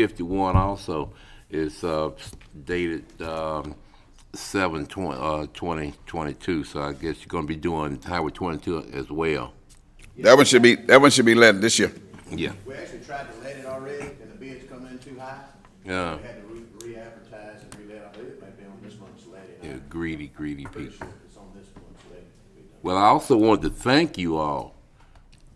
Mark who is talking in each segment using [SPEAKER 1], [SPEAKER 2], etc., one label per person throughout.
[SPEAKER 1] 51 also is uh, dated um, 7 twen- uh, 2022, so I guess you're going to be doing Highway 22 as well.
[SPEAKER 2] That one should be, that one should be let this year.
[SPEAKER 1] Yeah.
[SPEAKER 3] We actually tried to let it already, and the bids come in too high.
[SPEAKER 1] Yeah.
[SPEAKER 3] We had to re- re-advertise and re-let, I believe it may be on this month's letting.
[SPEAKER 1] Yeah,
[SPEAKER 3] I'm
[SPEAKER 1] Greedy, greedy
[SPEAKER 3] pretty
[SPEAKER 1] people.
[SPEAKER 3] sure it's on this month's letting. We done.
[SPEAKER 1] Well, I also want to thank you all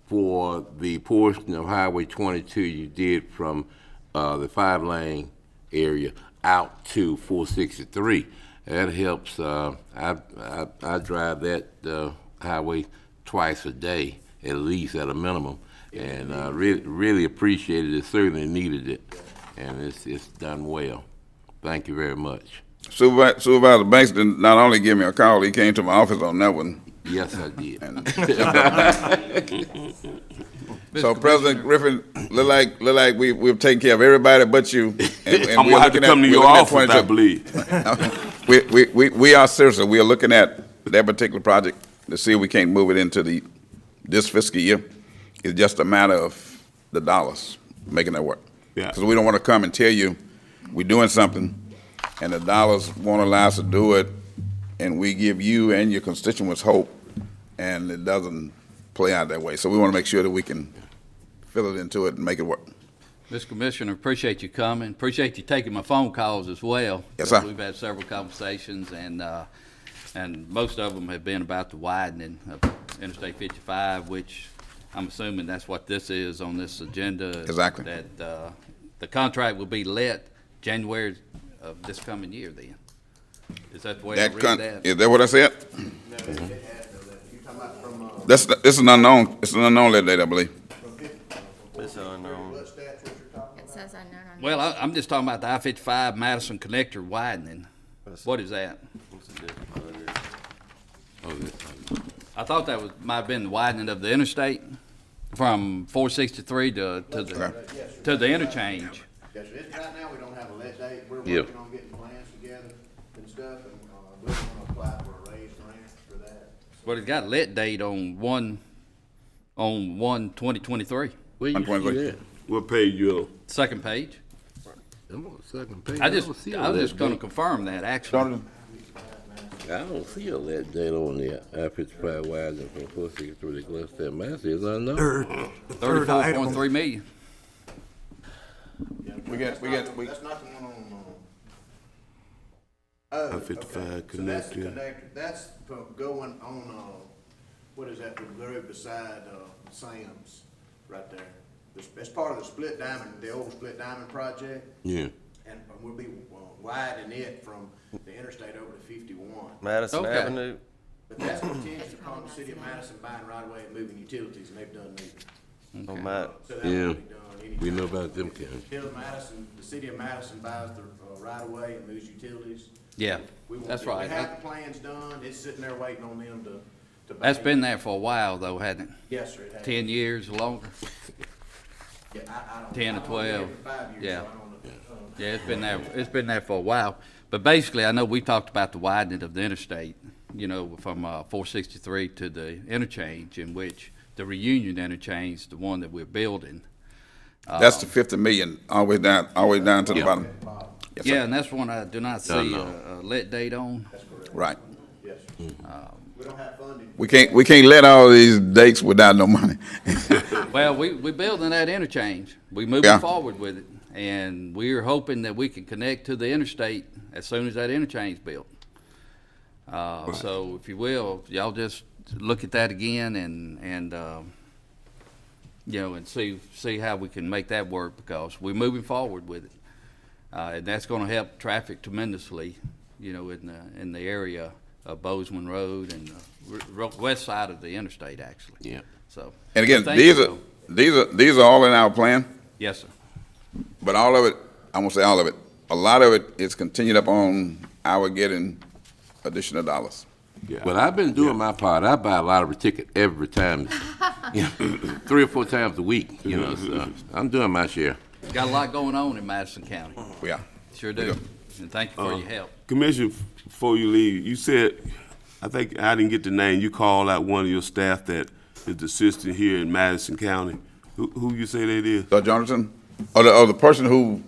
[SPEAKER 1] for the portion of Highway 22 you did from uh, the five lane area out to 463. That helps. Uh, I, I I drive that uh, highway twice a day, at least at a minimum, and uh, really really appreciated it. Certainly needed it, and it's it's done well. Thank you very much.
[SPEAKER 2] Supervisor, Supervisor Banks did not only give me a call, he came to my office on that one.
[SPEAKER 1] Yes, I did.
[SPEAKER 2] So President Griffin, look like, look like we, we've taken care of everybody but you. and- and
[SPEAKER 4] I'm
[SPEAKER 2] we're
[SPEAKER 4] gonna have to
[SPEAKER 2] looking at-
[SPEAKER 4] come to
[SPEAKER 2] we're
[SPEAKER 4] your
[SPEAKER 2] looking at
[SPEAKER 4] office, I
[SPEAKER 2] 22.
[SPEAKER 4] believe.
[SPEAKER 2] We, we, we, we are seriously, we are looking at that particular project to see if we can't move it into the, this fiscal year. It's just a matter of the dollars, making that work.
[SPEAKER 4] Yeah.
[SPEAKER 2] Because we don't want to come and tell you, we're doing something, and the dollars won't allow us to do it, and we give you and your constituents hope, and it doesn't play out that way. So we want to make sure that we can fill it into it and make it work.
[SPEAKER 5] Oh, Mr. Commissioner, appreciate you coming, appreciate you taking my phone calls as well.
[SPEAKER 2] Yes, sir.
[SPEAKER 5] We've had several conversations, and, uh, and most of them have been about the widening of Interstate 55, which I'm assuming that's what this is on this agenda.
[SPEAKER 2] Exactly.
[SPEAKER 5] That uh, the contract will be let January of this coming year then. Is that the way I
[SPEAKER 2] That
[SPEAKER 5] read
[SPEAKER 2] con,
[SPEAKER 5] that?
[SPEAKER 2] is that what I said?
[SPEAKER 3] No, it it
[SPEAKER 1] Mm-hmm.
[SPEAKER 3] has no letting. You're talking about from, uh,
[SPEAKER 2] That's, it's an unknown, it's an unknown lead date, I believe.
[SPEAKER 3] from fifty, uh, from
[SPEAKER 4] It's unknown.
[SPEAKER 3] what stats what you're talking
[SPEAKER 6] It
[SPEAKER 3] about?
[SPEAKER 6] says unknown on.
[SPEAKER 5] Well, I- I'm just talking about the I-55 Madison Connector widening. What is that?
[SPEAKER 1] Oh, this-
[SPEAKER 5] I thought that was, might have been the widening of the interstate from four sixty-three to, to the, to the interchange.
[SPEAKER 3] Yes, sir. It's, right now, we don't have a let date. We're
[SPEAKER 1] Yeah.
[SPEAKER 3] working on getting plans together and stuff, and, uh, we're gonna apply for a raised grant for that.
[SPEAKER 5] But it got let date on one, on one twenty twenty-three,
[SPEAKER 1] Where you
[SPEAKER 2] I'm going
[SPEAKER 1] see
[SPEAKER 2] like-
[SPEAKER 1] that?
[SPEAKER 4] What page you
[SPEAKER 5] second page.
[SPEAKER 1] I'm on the second page.
[SPEAKER 5] I just,
[SPEAKER 1] don't see a
[SPEAKER 5] I was
[SPEAKER 1] lead
[SPEAKER 5] just gonna
[SPEAKER 1] date.
[SPEAKER 5] confirm that, actually.
[SPEAKER 1] I don't see a lead date on the I fifty-five widening from four sixty-three to Glenstone, Massey, is unknown.
[SPEAKER 5] Thirty-four point three million.
[SPEAKER 2] We got, we got, we,
[SPEAKER 3] That's not the one on, um, oh,
[SPEAKER 4] on? I fifty-five
[SPEAKER 3] So that's the
[SPEAKER 4] connected.
[SPEAKER 3] connector, that's from going on, uh, what is that, the road beside, uh, Sam's, right there. It's, it's part of the Split Diamond, the old Split Diamond project,
[SPEAKER 1] Yeah.
[SPEAKER 3] and and we'll be uh, widening it from the interstate over to fifty-one.
[SPEAKER 7] Madison
[SPEAKER 5] Okay.
[SPEAKER 7] Avenue.
[SPEAKER 3] But that's contingent upon the city of Madison buying right away and moving utilities, and they've done neither.
[SPEAKER 7] Oh, my.
[SPEAKER 3] So that
[SPEAKER 1] Yeah.
[SPEAKER 3] will be done anytime.
[SPEAKER 1] We know about them, Karen.
[SPEAKER 3] Till Madison, the city of Madison buys the, uh, right away and moves utilities.
[SPEAKER 5] Yeah,
[SPEAKER 3] We want-
[SPEAKER 5] that's right.
[SPEAKER 3] We have the plans done, it's sitting there waiting on them to, to.
[SPEAKER 5] That's
[SPEAKER 3] buy it.
[SPEAKER 5] been there for a while though, hasn't it?
[SPEAKER 3] Yes, sir. it has.
[SPEAKER 5] Ten years or longer.
[SPEAKER 3] Yeah, I- I don't-
[SPEAKER 5] 10
[SPEAKER 3] I've
[SPEAKER 5] or
[SPEAKER 3] only been
[SPEAKER 5] 12.
[SPEAKER 3] here Five years,
[SPEAKER 5] Yeah.
[SPEAKER 3] so I don't know. Um,
[SPEAKER 5] Yeah, it's been there, it's been there for a while. But basically, I know we talked about the widening of the interstate, you know, from uh, 463 to the interchange in which the reunion interchange, the one that we're building.
[SPEAKER 2] That's the fifty million, always down, always down to the bottom. Yes, sir.
[SPEAKER 5] Yeah, and that's one I do not see
[SPEAKER 1] no.
[SPEAKER 5] a a let date on.
[SPEAKER 2] Right.
[SPEAKER 3] Yes,
[SPEAKER 1] Mm-hmm.
[SPEAKER 3] sir.
[SPEAKER 5] Um,
[SPEAKER 3] We don't have funding.
[SPEAKER 2] We can't, we can't let all these dates without no money.
[SPEAKER 5] Well, we, we building that interchange. We
[SPEAKER 2] Yeah.
[SPEAKER 5] moving forward with it. And we're hoping that we can connect to the interstate as soon as that interchange built. Uh, so if you will, y'all just look at that again and, and, um, you know, and see, see how we can make that work because we're moving forward with it. Uh, and that's gonna help traffic tremendously, you know, in the, in the area of Bozeman Road and the r- west side of the interstate, actually.
[SPEAKER 1] Yeah.
[SPEAKER 5] So.
[SPEAKER 2] And again,
[SPEAKER 5] Thank
[SPEAKER 2] these
[SPEAKER 5] you,
[SPEAKER 2] are,
[SPEAKER 5] though.
[SPEAKER 2] these are, these are all in our plan,
[SPEAKER 5] Yes, sir.
[SPEAKER 2] but all of it, I won't say all of it, a lot of it is continued upon our getting additional dollars.
[SPEAKER 1] But I've been doing my part. I buy a lottery ticket every time, you know, three or four times a week, you know, so I'm doing my share.
[SPEAKER 5] Got a lot going on in Madison County.
[SPEAKER 2] We are.
[SPEAKER 5] Sure do. And thank you
[SPEAKER 4] Uh-huh.
[SPEAKER 5] for your help.
[SPEAKER 4] uh, Commissioner, f- before you leave, you said, I think, I didn't get the name, you called out one of your staff that is assisting here in Madison County. Who, who you say that is?
[SPEAKER 2] Doug Jonathan, Or the, or the person who